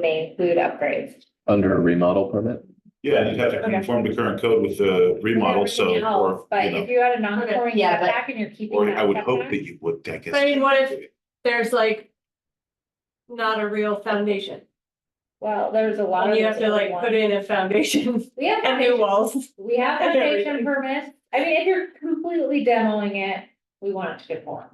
may include upgrades. under a remodel permit? Yeah, you'd have to Okay. conform to current code with the remodel, so, Everything else, or, you But if know, you had a non-conforming Yeah, but- setback and you're keeping. or that I would hope setback- that you would deck it. I mean, what if there's like. Not a real foundation, Well, there's a lot and of. you have to like put in a foundation We have, and new foundation- walls. we have and foundation everything. permits. I mean, if you're completely demoing it, we want it to conform.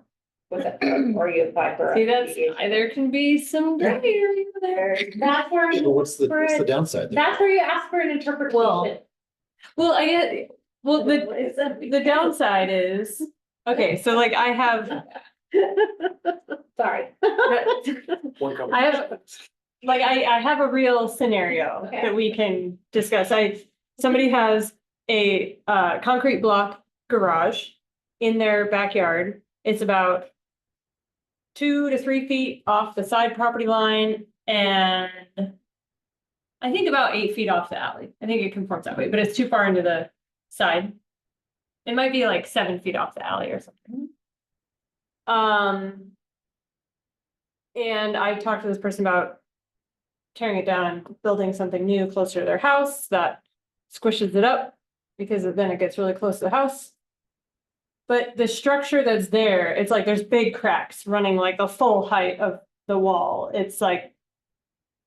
With it, or you apply for. a See, that's, remediation. there can be some gray area there. That's where, Yeah, but what's the, for what's the it. downside? there? that's where you ask for an interpretation. Well, Well, I get, well, the, the downside is, okay, so like I have. Sorry. I have, like, I, I have a real scenario Okay. that we can discuss. I, somebody has a, uh, concrete block garage in their backyard. It's about two to three feet off the side property line and I think about eight feet off the alley. I think it conforms that way, but it's too far into the side. It might be like seven feet off the alley or something. Um, and I talked to this person about tearing it down and building something new closer to their house that squishes it up because then it gets really close to the house. But the structure that's there, it's like there's big cracks running like the full height of the wall. It's like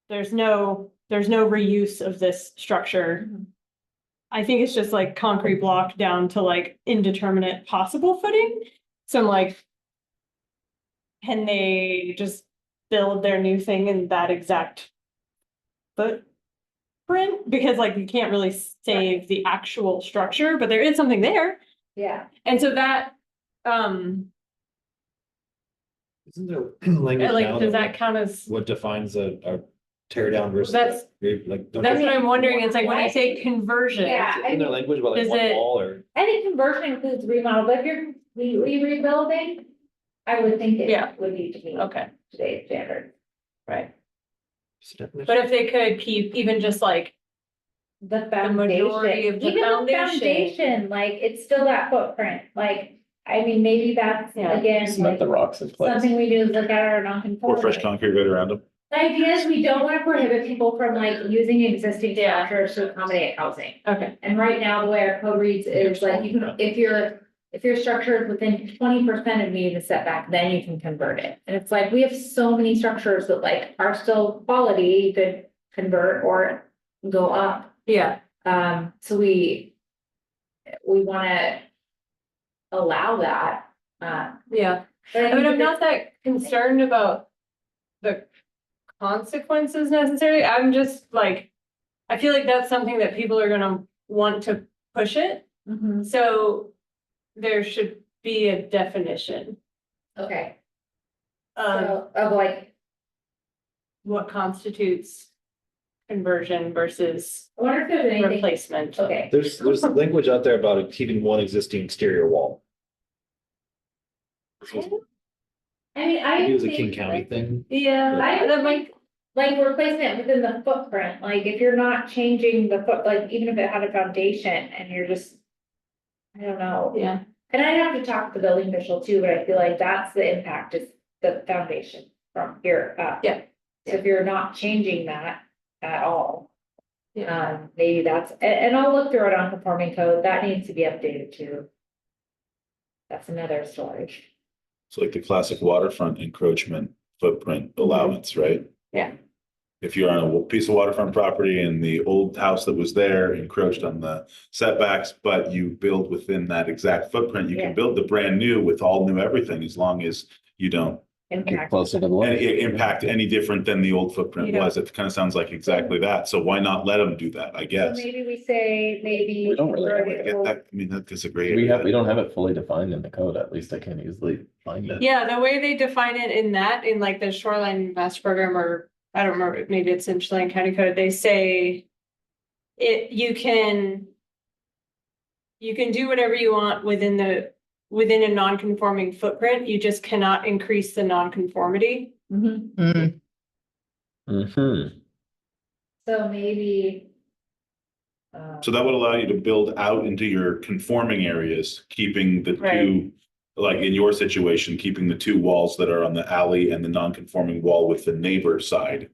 there's no, there's no reuse of this structure. I think it's just like concrete block down to like indeterminate possible footing. So I'm like, can they just build their new thing in that exact footprint? Because like you can't really save the actual structure, but there is something there. Yeah, And so that, um, Isn't there language now like, does that that count as, what defines a, a tear down versus? That's- a- Like, don't that's you- what I'm wondering. It's like when I say conversion. yeah. I isn't there language about like Does one it- wall or? I think conversion includes remodel, but if you're completely rebuilding, I would think Yeah. it would need to be Okay, today's standard. right. But But if they could keep even just like, The majority foundation, of the even the foundation. foundation, like, it's still that footprint, like, I mean, maybe that's Yeah. again, Cement like. the rocks in place. Something we do is look at our Pour fresh non-conformity. concrete right around them. The idea is we don't wanna prohibit people from like using existing Yeah. structures to accommodate housing. okay, And right now, the way our code reads is like, you can, if you're, if your structure is within twenty percent of meeting the setback, then you can convert it. And it's like, we have so many structures that like are still quality, you could convert or go up. yeah, Um, so we, we wanna allow that, uh. yeah. but I mean, I'm think not that concerned about the consequences necessarily. I'm just like, I feel like that's something that people are gonna want to push it. it's- Mhm, So there should be a definition okay, Um, of so, of like, what constitutes conversion versus I wonder if there's anything, replacement. okay, There's, there's language out there about keeping one existing exterior wall. This was- I mean, I. Maybe it was a think, King County like- thing. Yeah, I, that might, Like replacement within the footprint, like if you're not changing the foot, like even if it had a foundation and you're just. I don't know, yeah, and I'd have to talk to the building official too, but I feel like that's the impact is the foundation from here up. Yeah. So if you're not changing that at all. yeah. Um, maybe that's, and, and I'll look through it on conforming code, that needs to be updated too. That's another story. It's like the classic waterfront encroachment footprint allowance, right? Mhm. Yeah. If you're on a piece of waterfront property and the old house that was there encroached on the setbacks, but you build within that exact footprint, you Yeah. can build the brand new with all new everything as long as you don't Get Impact. Closer to the and line. i- impact any different than the old You footprint don't- was. It kind of sounds like exactly that. So why not let them do that, I So guess? maybe we say, maybe. We don't really know I get that. I mean, that is a great. We have, we don't have it fully defined in the code, at least I can't easily find it. Yeah, the way they define it in that, in like the shoreline master program, or I don't remember, maybe it's in Chelan County Code, they say. It, you can. You can do whatever you want within the, within a non-conforming footprint, you just cannot increase the non-conformity. Mhm. Mm-hmm. So maybe. uh, So that would allow you to build out into your conforming areas, keeping the two, Right. like in your situation, keeping the two walls that are on the alley and the non-conforming wall with the neighbor side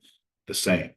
the same.